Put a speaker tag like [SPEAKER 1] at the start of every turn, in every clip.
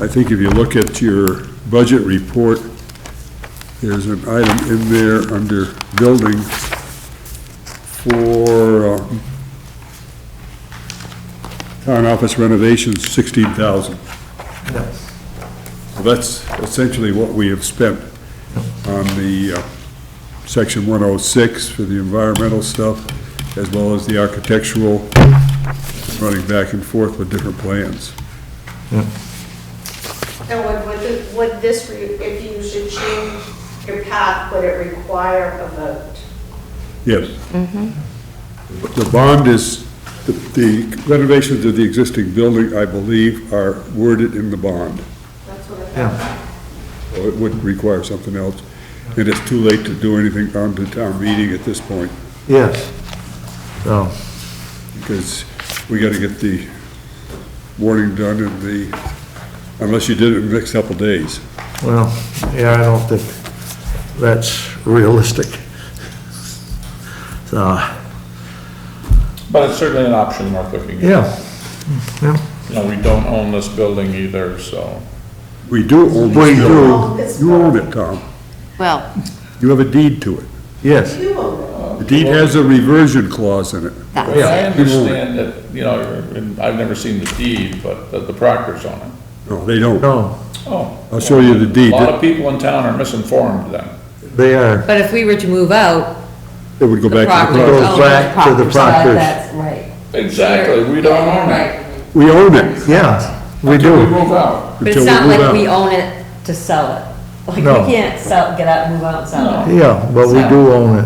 [SPEAKER 1] I think if you look at your budget report, there's an item in there under building for um, town office renovations, sixteen thousand.
[SPEAKER 2] Yes.
[SPEAKER 1] That's essentially what we have spent on the uh, section one oh six for the environmental stuff, as well as the architectural, running back and forth with different plans.
[SPEAKER 3] And would, would, the- would this, re- if you should change your path, would it require a vote?
[SPEAKER 1] Yes. The bond is, the- the renovations of the existing building, I believe, are worded in the bond.
[SPEAKER 3] That's what I
[SPEAKER 2] Yeah.
[SPEAKER 3] thought.
[SPEAKER 1] So It would require something else, and it's too late to do anything on the town meeting at this point,
[SPEAKER 2] Yes. So,
[SPEAKER 1] because we gotta get the warning done and the, unless you did it in the next couple days.
[SPEAKER 2] well, yeah, I don't think that's realistic. So,
[SPEAKER 4] But it's certainly an option we're looking at.
[SPEAKER 2] yeah, yeah,
[SPEAKER 4] You know, we don't own this building either, so.
[SPEAKER 1] We do own
[SPEAKER 2] We
[SPEAKER 1] this
[SPEAKER 2] do.
[SPEAKER 1] building. You own it, Tom.
[SPEAKER 5] Well,
[SPEAKER 1] You have a deed to it.
[SPEAKER 2] yes,
[SPEAKER 3] You own
[SPEAKER 1] The deed has a reversion clause in it.
[SPEAKER 5] that's
[SPEAKER 4] I
[SPEAKER 5] it.
[SPEAKER 4] understand that, you know, and I've never seen the deed, but that the proctor's on it.
[SPEAKER 1] No, they don't.
[SPEAKER 2] no,
[SPEAKER 4] Oh.
[SPEAKER 1] I'll show you the deed.
[SPEAKER 4] A lot of people in town are misinformed then.
[SPEAKER 2] they are,
[SPEAKER 6] But if we were to move out,
[SPEAKER 1] It would go
[SPEAKER 6] the
[SPEAKER 1] back to
[SPEAKER 6] property
[SPEAKER 1] the
[SPEAKER 2] It goes
[SPEAKER 1] property.
[SPEAKER 6] owns
[SPEAKER 2] back to the
[SPEAKER 6] the property.
[SPEAKER 2] proctors.
[SPEAKER 6] That's right.
[SPEAKER 4] Exactly, we don't own it.
[SPEAKER 6] Right.
[SPEAKER 1] We own it.
[SPEAKER 2] yeah, we
[SPEAKER 4] Until We
[SPEAKER 2] do.
[SPEAKER 4] move out.
[SPEAKER 6] But
[SPEAKER 1] Until
[SPEAKER 6] it's
[SPEAKER 1] we
[SPEAKER 6] not
[SPEAKER 1] move out.
[SPEAKER 6] like we own it to sell it. Like,
[SPEAKER 2] No.
[SPEAKER 6] we can't sell, get out, move out and sell it.
[SPEAKER 2] Yeah, but we do own it.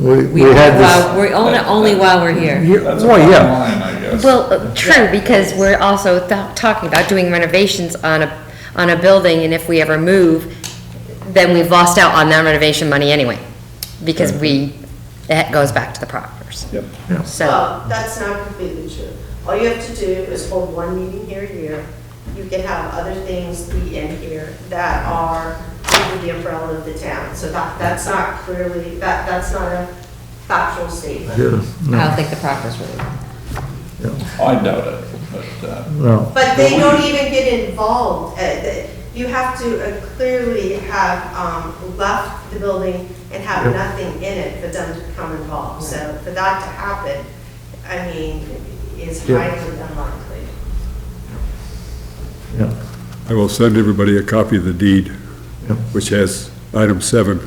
[SPEAKER 2] We, we
[SPEAKER 6] own it
[SPEAKER 2] had this,
[SPEAKER 6] while- We own it only while we're here.
[SPEAKER 2] yeah,
[SPEAKER 4] That's a
[SPEAKER 2] well,
[SPEAKER 4] bottom
[SPEAKER 2] yeah,
[SPEAKER 4] line, I guess.
[SPEAKER 7] Well, uh, true, because we're also th- talking about doing renovations on a, on a building, and if we ever move, then we've lost out on that renovation money anyway, because we, that goes back to the proctors.
[SPEAKER 4] Yep.
[SPEAKER 7] So,
[SPEAKER 3] Well, that's not completely true. All you have to do is hold one meeting here a year. You can have other things be in here that are under the umbrella of the town. So that, that's not clearly, that, that's not a factual statement.
[SPEAKER 2] yeah,
[SPEAKER 5] I don't think the proctor's really.
[SPEAKER 4] I doubt it, but, uh,
[SPEAKER 2] no,
[SPEAKER 3] But they don't even get involved. Uh, the- You have to uh, clearly have um, left the building and have
[SPEAKER 2] Yep.
[SPEAKER 3] nothing in it for them to come involved. So for that to happen, I mean, is
[SPEAKER 2] Yep.
[SPEAKER 3] highly unlikely.
[SPEAKER 2] yeah,
[SPEAKER 1] I will send everybody a copy of the deed,
[SPEAKER 2] Yep.
[SPEAKER 1] which has item seven,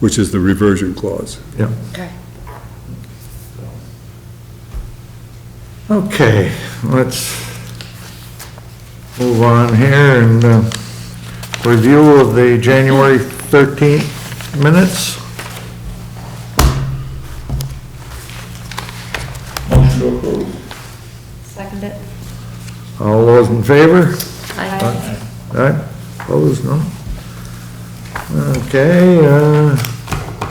[SPEAKER 1] which is the reversion clause.
[SPEAKER 2] yeah.
[SPEAKER 7] okay.
[SPEAKER 2] Okay, let's move on here and uh, review of the January 13th minutes.
[SPEAKER 4] motion to approve.
[SPEAKER 5] Second it.
[SPEAKER 2] All those in favor?
[SPEAKER 5] Aye.
[SPEAKER 2] Aye, opposed, no? Okay, uh,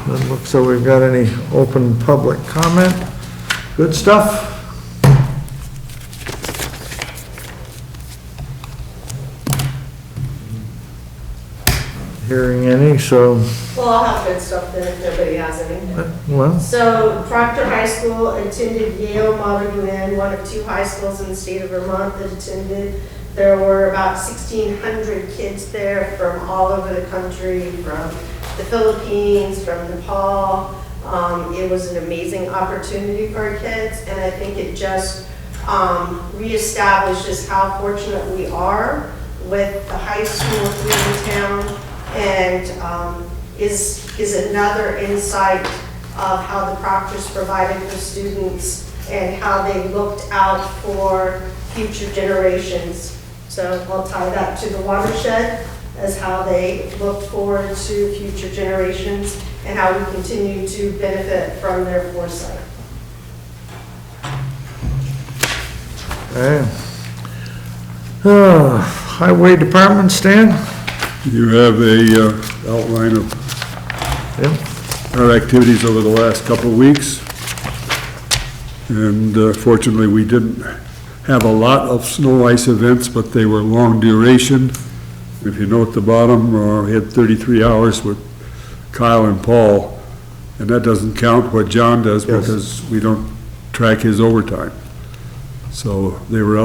[SPEAKER 2] doesn't look so we've got any open public comment. Good stuff. Hearing any, so,
[SPEAKER 3] Well, I'll have good stuff then if nobody has any.
[SPEAKER 2] well,
[SPEAKER 3] So Proctor High School attended Yale Modern UN, one of two high schools in the state of Vermont that attended. There were about 1,600 kids there from all over the country, from the Philippines, from Nepal. Um, It was an amazing opportunity for our kids, and I think it just um, reestablishes how fortunate we are with the high school here in town, and um, is, is another insight of how the proctors provided for students and how they looked out for future generations. So I'll tie that to the watershed as how they looked forward to future generations and how we continue to benefit from their foresight.
[SPEAKER 2] eh. Uh, Highway Department, Stan?
[SPEAKER 1] You have a uh, outline of
[SPEAKER 2] Yep.
[SPEAKER 1] our activities over the last couple of weeks. And uh, fortunately, we didn't have a lot of snow ice events, but they were long duration. If you note the bottom, uh, we had 33 hours with Kyle and Paul, and that doesn't count what John does
[SPEAKER 2] Yes.
[SPEAKER 1] because we don't track his overtime. So they were